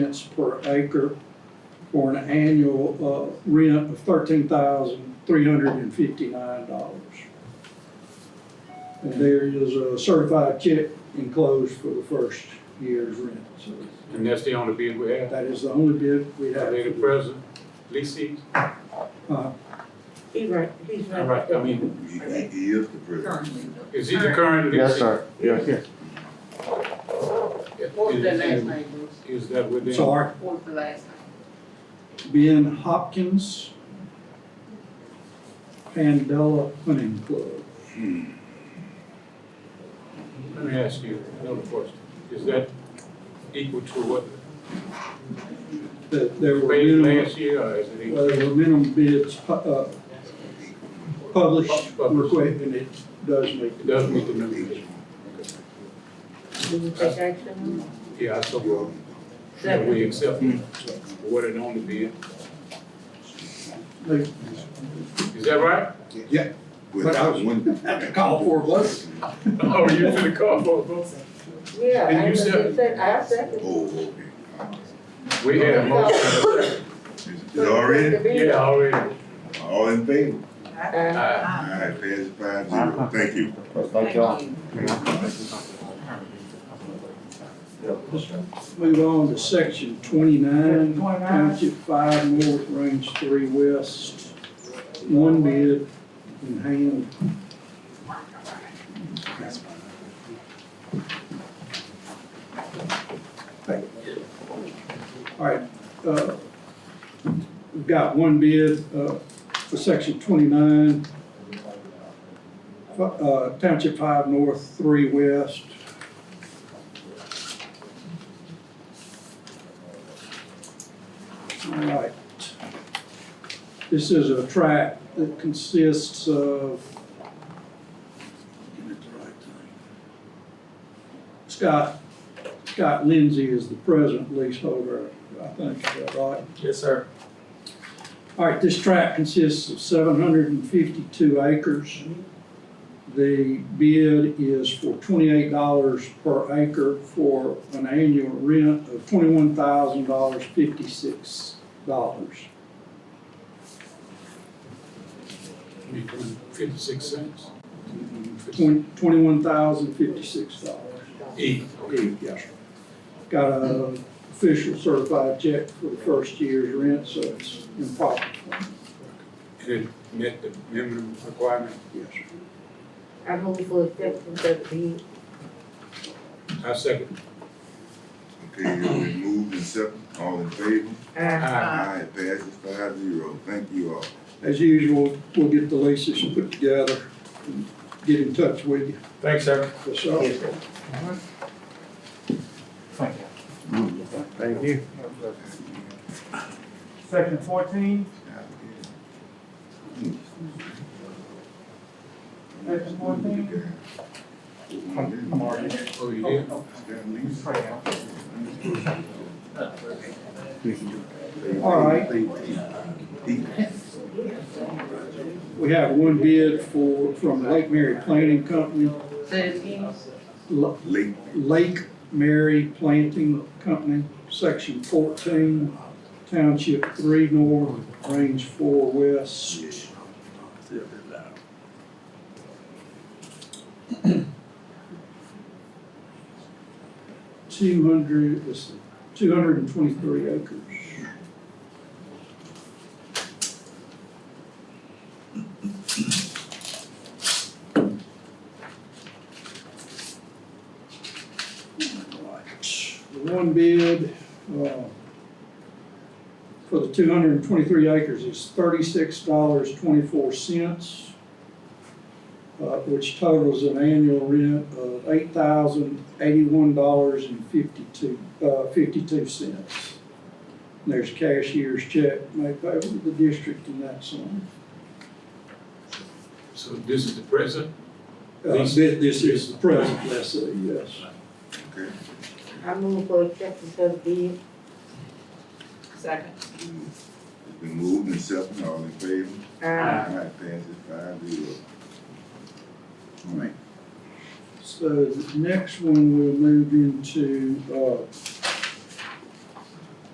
cents per acre for an annual, uh, rent of thirteen thousand three hundred and fifty-nine dollars. And there is a certified check enclosed for the first year's rent, so And that's the only bid we have. that is the only bid we Are have. they the present leases? Uh, He right, he's All right. right, I mean, He, he is the president. Currently. is he the current leasing? Yes, sir. What was that last Is- name, Bruce? Is that within? Sorry, What was the last name? Ben Hopkins, Pandela Hunting Club. Let me ask you another question. Is that equal to what That there we were paid minimum, last year or is it? uh, equal? there were minimum bids, pu- uh, published, Published. request, and it does make It does meet the minimum. Did you take action? Yeah, I saw well, that Second. we accept it. So, What it only bid. They- Is that right? Yeah. Without one. Had to call for a vote. Oh, you finna call for a vote? Yeah, And I you just said- said, I second. Oh, okay. We had a motion. Is it already? Yeah, already. Ah, All in favor? Uh, Aye. All right, pass it five zero. Thank you. Thank y'all. Move on to section twenty-nine, 29. township five north, range three west, one bid in hand. All right, uh, we've got one bid, uh, for section twenty-nine, uh, township five north, three west, All right. This is a track that consists of. Get it the right thing. Scott, Scott Lindsay is the present leaseholder, I think, is that right? Yes, sir. All right, this tract consists of seven hundred and fifty-two acres. The bid is for twenty-eight dollars per acre for an annual rent of twenty-one thousand dollars, fifty-six dollars. Fifty-six cents. Twenty-one thousand, fifty-six dollars. E. Yes. Got a official certified check for the first year's rent, so it's improper. And it met the minimum requirement. Yes. I move for acceptance of the bid. I second. Okay, it's been moved and second. All in favor? Uh, All Aye. right, pass it five zero. Thank you all. As usual, we'll get the leases put together and get in touch with you. Thanks, sir. Yes, sir. Thank you. Thank you. Section fourteen, section fourteen. I'm already. Oh, you did? All right. We have one bid for, from Lake Mary Planting Company, Say it again. L- Late. Lake Mary Planting Company, section fourteen, township three north, range four west. Two hundred, two hundred and twenty-three acres. The one bid, uh, for the two hundred and twenty-three acres is thirty-six dollars twenty-four cents, uh, which totals an annual rent of eight thousand eighty-one dollars and fifty-two, uh, fifty-two cents. There's cashier's check made payable to the district and that's on. So this is the present? Uh, This this is the present lessee, yes. Okay. I move for acceptance of the bid. Second. It's been moved and second. All in favor? Uh, All right, pass it five zero. All right. So the next one we'll move into, uh,